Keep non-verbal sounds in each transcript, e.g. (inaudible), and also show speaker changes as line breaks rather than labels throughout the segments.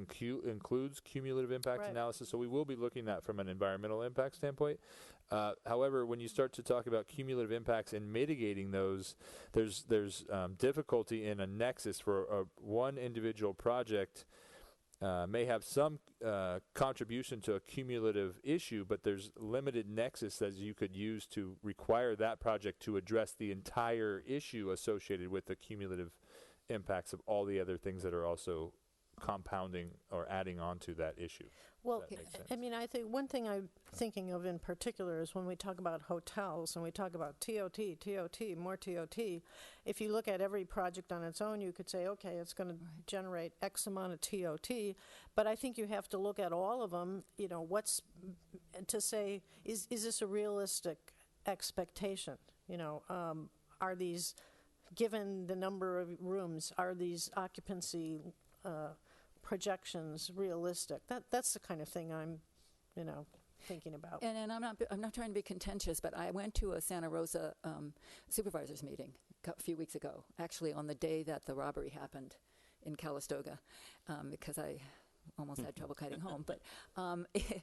incu- includes cumulative impact
Right.
analysis. So we will be looking at from an environmental impact standpoint. Uh, however, when you start to talk about cumulative impacts and mitigating those, there's there's um, difficulty in a nexus for a, one individual project. Uh, may have some uh, contribution to a cumulative issue, but there's limited nexus that you could use to require that project to address the entire issue associated with the cumulative impacts of all the other things that are also compounding or adding on to that issue.
Well,
that makes
I- I
sense.
mean, I think, one thing I'm thinking of in particular is when we talk about hotels and we talk about TOT, TOT, more TOT, if you look at every project on its own, you could say, okay, it's going to generate X amount of TOT, but I think you have to look at all of them, you know, what's, and to say, is, is this a realistic expectation? You know, um, are these, given the number of rooms, are these occupancy uh, projections realistic? That, that's the kind of thing I'm, you know, thinking about.
And, and I'm not I'm not trying to be contentious, but I went to a Santa Rosa um, supervisors meeting a cou- few weeks ago, actually on the day that the robbery happened in Calistoga, um, because I almost had trouble kiting home. But um, (laughs) th-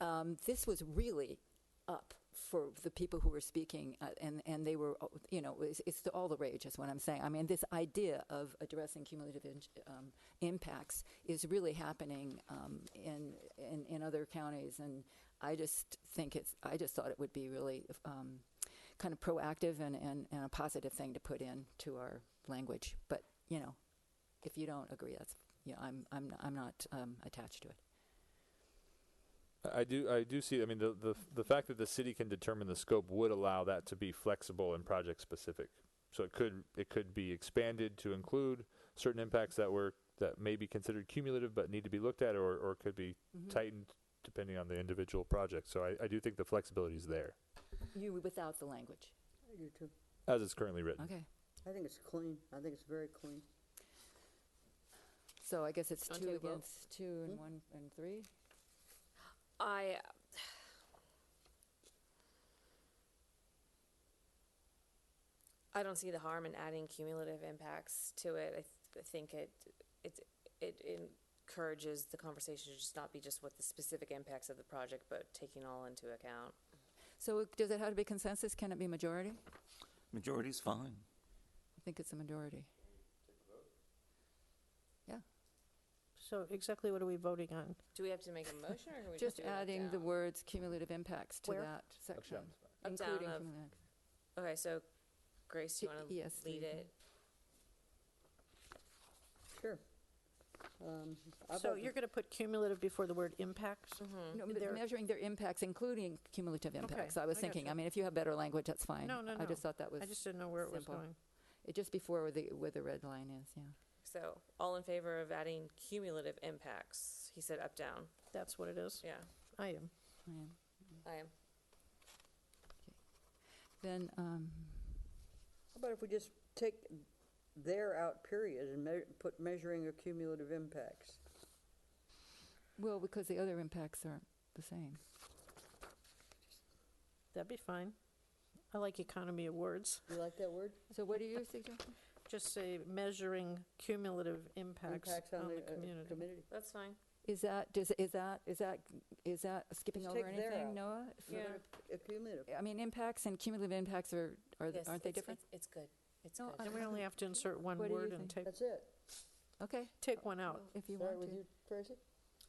um, this was really up for the people who were speaking, uh, and and they were, uh, you know, it's, it's the, all the rage is what I'm saying. I mean, this idea of addressing cumulative in- um, impacts is really happening um, in, in in other counties, and I just think it's. I just thought it would be really um, kind of proactive and, and and a positive thing to put in to our language. But you know, if you don't agree, that's you know, I'm I'm I'm not um, attached to it.
I I do, I do see. I mean, the, the the fact that the city can determine the scope would allow that to be flexible and project specific. So it could it could be expanded to include certain impacts that were that may be considered cumulative but need to be looked at, or or could be
Mm-hmm.
tightened depending on the individual project. So I, I do think the flexibility is there
You without the language.
I do too.
as it's currently written.
Okay.
I think it's clean. I think it's very clean.
So I guess it's
Wanna
two
take a vote? Hmm?
against two and one and three.
I. I don't see the harm in adding cumulative impacts to it. I, th- I think it, it it encourages the conversation to just not be just what the specific impacts of the project, but taking all into account.
So it- does it have to be consensus? Can it be majority? I
Majority's fine.
think it's a majority.
So exactly what are we voting on?
Do we have to make a motion, or can we just,
Just
do it up
adding the
down?
words cumulative impacts to
Where?
that section.
Up down
including
of-
cumulative.
Okay, so Grace, do you want to
Yes,
lead
lead it.
it?
Sure. Um, I've
So
always-
you're going to pc cumulative before the word impacts?
Mm-hmm.
No,
Mm.
but
There-
measuring their impacts, including cumulative impacts. I was
I
thinking,
gotcha.
I mean, if you have better language, that's fine.
No, no,
I
no.
just thought that was,
I just didn't know where it was
simple.
going.
it just before where the, where the red line is, yeah.
So, all in favor of adding cumulative impacts? He said up down.
That's what it is.
Yeah,
I am.
Yeah.
I am.
Then, um,
How about if we just take there out period and mea- put measuring of cumulative impacts?
well, because the other impacts aren't the same.
That'd be fine. I like economy of words.
You like that word?
So what do you suggest?
Just say measuring cumulative impacts
Impacts
on the
uh,
community.
That's fine.
Is that, does, is that, is that, is that skipping
Just
over
take there
anything,
out.
Noah? For
Yeah.
Uh, Cumulative.
I mean, impacts and cumulative impacts are, are th-
Yes,
aren't they
it's-
different?
It's, it's good. It's
No,
good.
I-
And we only have to insert one
What do you
word and
think?
take,
That's it.
Okay,
take one out.
if you
Is that
want
with
to.
you, Tracy?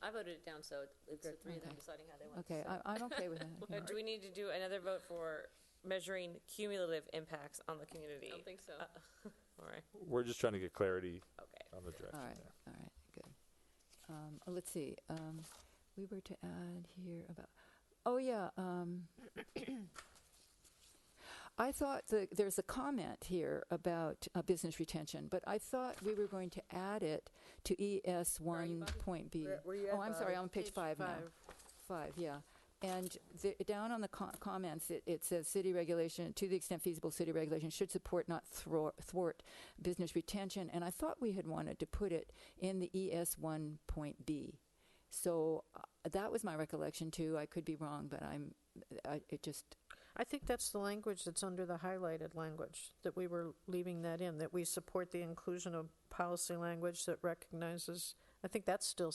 I voted it down, so it- it's the
Good.
three of them
Okay.
deciding how they want to
Okay, I- I'm okay with that.
Uh,
yeah.
Do we need to do another vote for measuring cumulative impacts on the community?
I don't think so. Uh, (laughs)
All right,
We're just trying to get clarity
okay.
on the direction.
All right,
there.
all right, good. Um, oh, Let's see, um, we were to add here about, oh, yeah. um, (coughs) I thought that there's a comment here about uh, business retention, but I thought we were going to add it to ES
are you,
one
Bobby?
point B.
Where- where you at,
Oh, I'm sorry,
Bobby?
I'm on page five now. Five, yeah. And the, down on the co- comments, it, it says city regulation, to the extent feasible, city regulation should support, not thwart, thwart business retention. And I thought we had wanted to put it in the ES one point B. So uh, that was my recollection too. I could be wrong, but I'm, I, it just,
I think that's the language that's under the highlighted language, that we were leaving that in, that we support the inclusion of policy language that recognizes I think that's still